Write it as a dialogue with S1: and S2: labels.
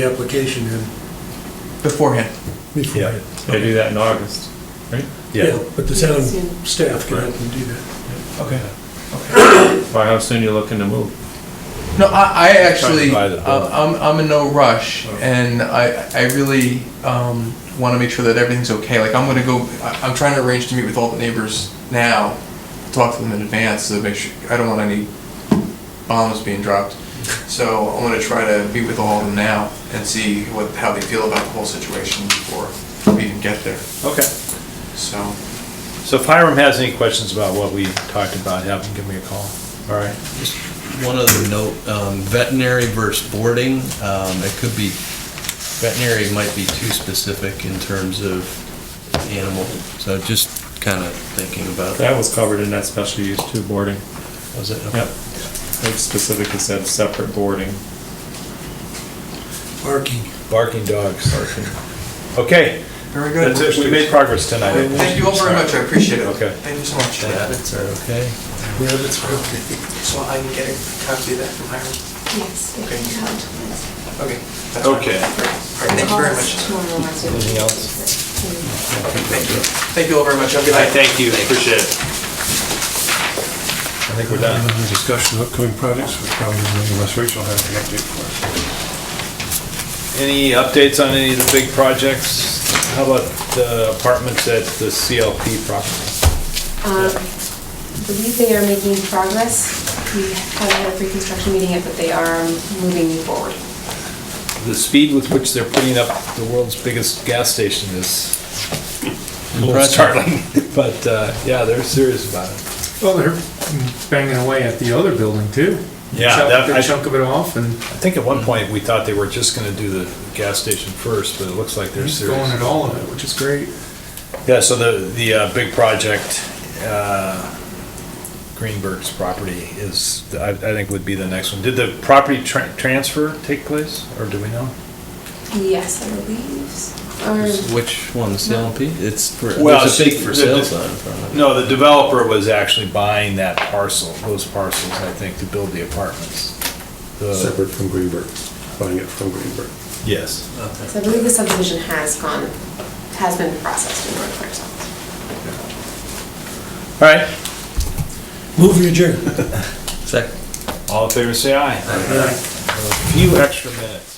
S1: the application in
S2: beforehand.
S1: before.
S3: Yeah, they do that in August, right?
S1: Yeah, but the town
S4: Yes, yeah.
S1: staff can help them do that.
S2: Okay.
S3: By how soon you looking to move?
S2: No, I, I actually,
S3: buy the building.
S2: uh, I'm, I'm in no rush, and I, I really um, want to make sure that everything's okay. Like, I'm gonna go, I- I'm trying to arrange to meet with all the neighbors now, talk to them in advance to make sure, I don't want any bombs being dropped. So I'm gonna try to meet with all of them now and see what, how they feel about the whole situation before we even get there,
S5: Okay.
S2: so.
S5: So if Hiram has any questions about what we talked about, have him give me a call. All right?
S6: One other note, um, veterinary versus boarding, um, it could be, veterinary might be too specific in terms of animal, so just kind of thinking about that.
S3: That was covered in that special use two boarding.
S6: Was it?
S3: Yep. They specifically said separate boarding.
S1: Parking.
S5: Barking dogs. Okay,
S2: Very good.
S5: that's it. We made progress tonight.
S2: Thank you all very much, I appreciate it.
S5: Okay.
S2: Thank you so much.
S6: That's okay.
S1: Rabbits are okay.
S2: So I can get a copy of that from Hiram?
S4: Yes.
S2: Okay.
S4: Thank
S2: Okay. that's fine.
S5: Okay.
S2: All right, thank you very much.
S4: Anything else?
S2: Thank you. Thank you all very much. Have a good
S5: I
S2: night.
S5: thank you. Appreciate it. I think we're done.
S7: Uh, Discussion of upcoming projects, which probably many of us, Rachel has an update for us.
S5: Any updates on any of the big projects? How about the apartments at the CLP property?
S4: Um, I believe they are making progress. We haven't had a pre-construction meeting yet, but they are moving forward.
S5: The speed with which they're putting up the world's biggest gas station is a little startling, but uh, yeah, they're serious about it.
S3: Well, they're banging away at the other building too.
S5: Yeah, Chop- that- I- chunk
S3: of it off and
S5: I think at one point, we thought they were just gonna do the gas station first, but it looks like they're serious.
S3: all of it, which is great.
S5: Yeah, so the, the uh, big project, uh, Greenberg's property is, I, I think would be the next one. Did the property tra- transfer take place, or do we know?
S4: Yes, I believe. Or,
S6: Which one, the CLP? It's, for-
S5: Well,
S6: there's a big for
S5: the-
S6: sale
S5: the-
S6: sign in front of it.
S5: No, the developer was actually buying that parcel, those parcels, I think, to build the apartments. The-
S7: Separate from Greenberg, buying it from Greenberg.
S5: Yes.
S4: so I believe the subdivision has gone, has been processed in North Arkansas.
S5: All right,
S1: Move your chair.
S6: Second.
S5: all in favor, say aye. A few extra minutes.